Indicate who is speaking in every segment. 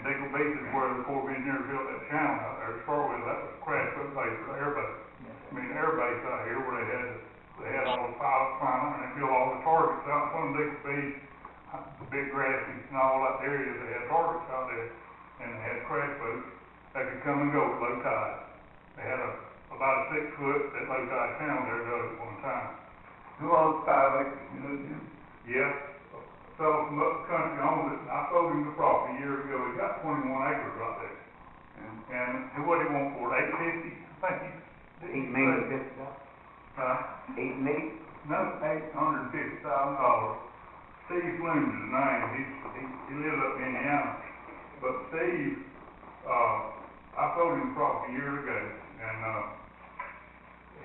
Speaker 1: places where the Corps of Engineers built that channel out there, Starville, that was a crash foot base for the air base. I mean, the air base out here where they had, they had all the pilots flying and they built all the targets out, some big, big, uh, big grasses and all that area, they had targets out there. And they had crash boats that could come and go at low tide. They had a, about a six foot at low tide channel there dug at one time.
Speaker 2: Who owns five acres, you know, Jim?
Speaker 1: Yeah, a fellow from up country owned it, and I sold him the property years ago, he got twenty-one acres right there. And he- what he want for it, eight fifty, I think he.
Speaker 3: Eight million fifty dollars,
Speaker 1: Uh,
Speaker 3: eight million?
Speaker 1: no, eight hundred and fifty thousand dollars. Steve Bloom is his name, he's, he, he lives up in Indiana, but Steve, uh, I sold him the property years ago, and, uh,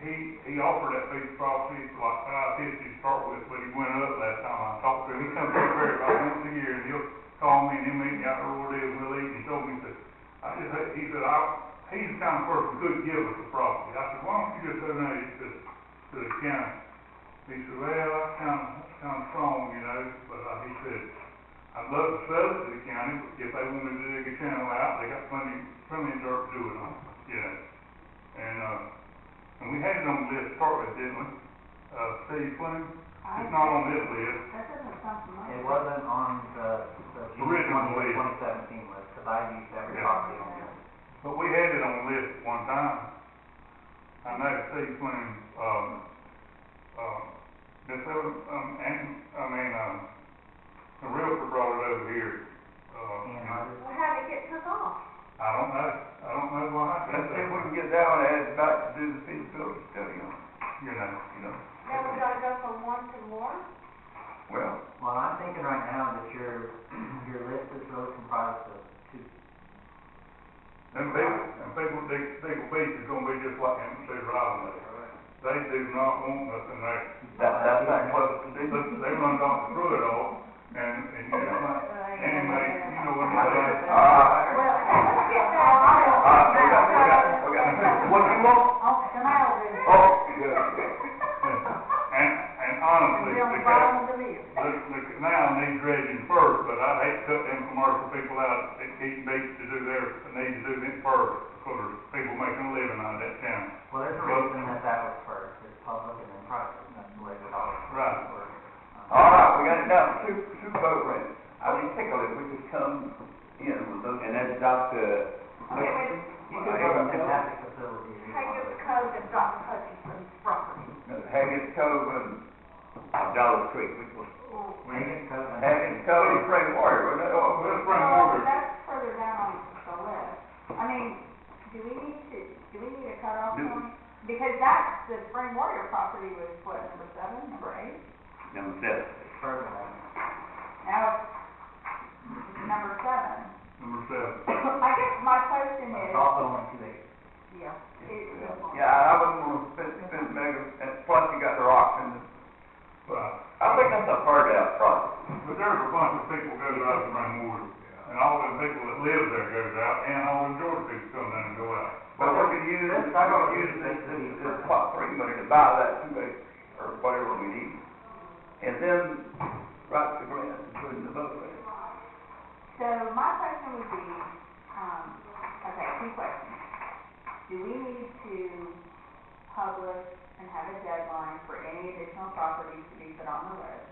Speaker 1: he, he offered that piece of property for like five fifty to start with, but he went up last time I talked to him, he comes up here about once a year, and he'll call me and he'll meet me out there where it is, we'll eat, and he told me, he said, I just, hate- he said, I, he's the kind of person who could give us the property, I said, why don't you just donate it to, to the county? He said, well, that's kind of, that's kind of strong, you know, but uh, he said, I'd love to sell it to the county, but if they wanted to dig a channel out, they got plenty, plenty of dirt to do it on, you know. And, uh, and we had it on the list to start with, didn't we? Uh, Steve Flynn, it's not on this list,
Speaker 4: That doesn't sound familiar.
Speaker 3: It wasn't on the, the June
Speaker 1: Original list.
Speaker 3: twenty, twenty seventeen list, because I used every
Speaker 1: Yeah.
Speaker 3: property on there.
Speaker 1: but we had it on the list at one time. I know Steve Flynn, um, um, this other, um, and, I mean, um, the realtor brought it over here, uh,
Speaker 3: And
Speaker 1: and
Speaker 3: others.
Speaker 4: Well, how'd it get took off?
Speaker 1: I don't know, I don't know why.
Speaker 2: Let's see if we can get that one added back to do the feasibility study on,
Speaker 1: You know,
Speaker 2: you know?
Speaker 4: Now we gotta go from one to one?
Speaker 2: Well,
Speaker 3: Well, I'm thinking right now that your, your list is really comprised of two,
Speaker 1: them people, them people, they, they go beach is gonna be just like them, they're driving there. They do not want nothing there.
Speaker 2: that, that's not close to
Speaker 1: They,
Speaker 2: the,
Speaker 1: they run down through it all, and, and, you know, like, anyway, you know what
Speaker 2: I
Speaker 1: I'm
Speaker 2: think,
Speaker 1: saying?
Speaker 2: uh,
Speaker 4: Well,
Speaker 2: uh, we got, we got, we got, what do you want?
Speaker 4: Oh, the mail room.
Speaker 2: Oh, yeah, yeah.
Speaker 1: And, and honestly,
Speaker 4: It's on
Speaker 1: the
Speaker 4: the
Speaker 1: cat,
Speaker 4: bottom of the list.
Speaker 1: the, the canal needs dredging first, but I'd hate to cut them commercial people out at Keaton Beach to do their, need to do it first, for people making a living out of that town.
Speaker 3: well, there's a reason that that was first, it's public and then private, that's the way it always
Speaker 1: Right.
Speaker 3: works. Um,
Speaker 2: All right, we got it down, two, two boat ramps. I mean, think of it, we could come in with those.
Speaker 5: And that's Dr.
Speaker 4: Okay, wait,
Speaker 3: Well,
Speaker 2: You
Speaker 3: I
Speaker 2: could go
Speaker 3: don't
Speaker 2: to
Speaker 3: think that's a facility. you
Speaker 4: take
Speaker 3: want.
Speaker 4: your code and Dr. Hutchinson's property.
Speaker 2: Haggis Cove and
Speaker 5: Dollar Creek, which was
Speaker 4: Oh,
Speaker 3: Make it so that-
Speaker 2: Haggis Cove and Spring Warrior, wasn't it? Oh,
Speaker 1: Let's bring order.
Speaker 4: that's further down on the list. I mean, do we need to, do we need a cutoff
Speaker 5: No.
Speaker 4: point? Because that's, the Spring Warrior property was what, number seven, number eight?
Speaker 5: number seven.
Speaker 3: Further than-
Speaker 4: Now, it's number seven.
Speaker 1: Number seven.
Speaker 4: I guess my question
Speaker 3: But
Speaker 4: is,
Speaker 3: it's also only two acres.
Speaker 4: yeah. it-
Speaker 2: Yeah, I wouldn't want to spend, spend mega, and plus you got the rocks and,
Speaker 1: Right.
Speaker 5: I think that's a part out project.
Speaker 1: But there's a bunch of people goes out to Rainwater, and all them people that live there goes out, and all them Georgia people come down and go out.
Speaker 2: but we could use, we're gonna use this, this, this pot three money to buy that two acre, or whatever we need. And then write the grant, including the boat ramp.
Speaker 4: So my question would be, um, okay, two questions. Do we need to publish and have a deadline for any additional properties to be put on the list?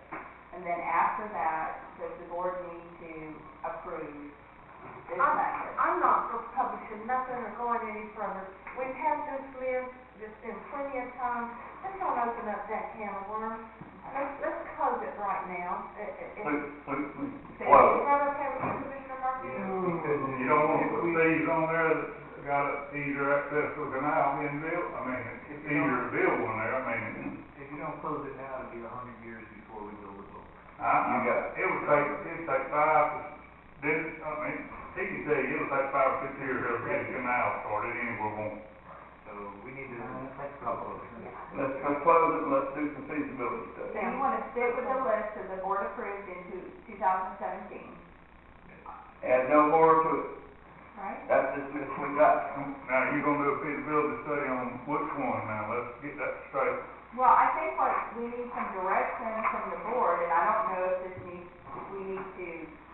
Speaker 4: And then after that, does the board need to approve this
Speaker 6: I'm-
Speaker 4: method?
Speaker 6: I'm not for publishing nothing or going any further. We've had this list, there's been plenty of time, let's not open up that can of worms. Let's, let's close it right now. It- it- it-
Speaker 2: Please, please, please.
Speaker 6: Is that okay with you, Commissioner Murphy?
Speaker 1: You don't want to put thieves on there that got a easier access to a canal being built, I mean, it's easier to build one there, I mean,
Speaker 7: If you don't close it now, it'll be a hundred years before we build it.
Speaker 1: I, I, it would take, it'd take five, this, I mean, he can tell you, it'll take five or six years to get a canal started anywhere on.
Speaker 7: So we need to,
Speaker 3: Uh, it's like a
Speaker 7: couple of-
Speaker 2: Let's, let's close it, and let's do some feasibility study.
Speaker 4: So you wanna stick with the list that the board approved in two, two thousand seventeen,
Speaker 2: Add no more to it,
Speaker 4: right?
Speaker 2: that's just this we got.
Speaker 1: Now, you gonna do a feasibility study on which one now, let's get that straight.
Speaker 4: Well, I think what, we need some direction from the board, and I don't know if this needs, if we need to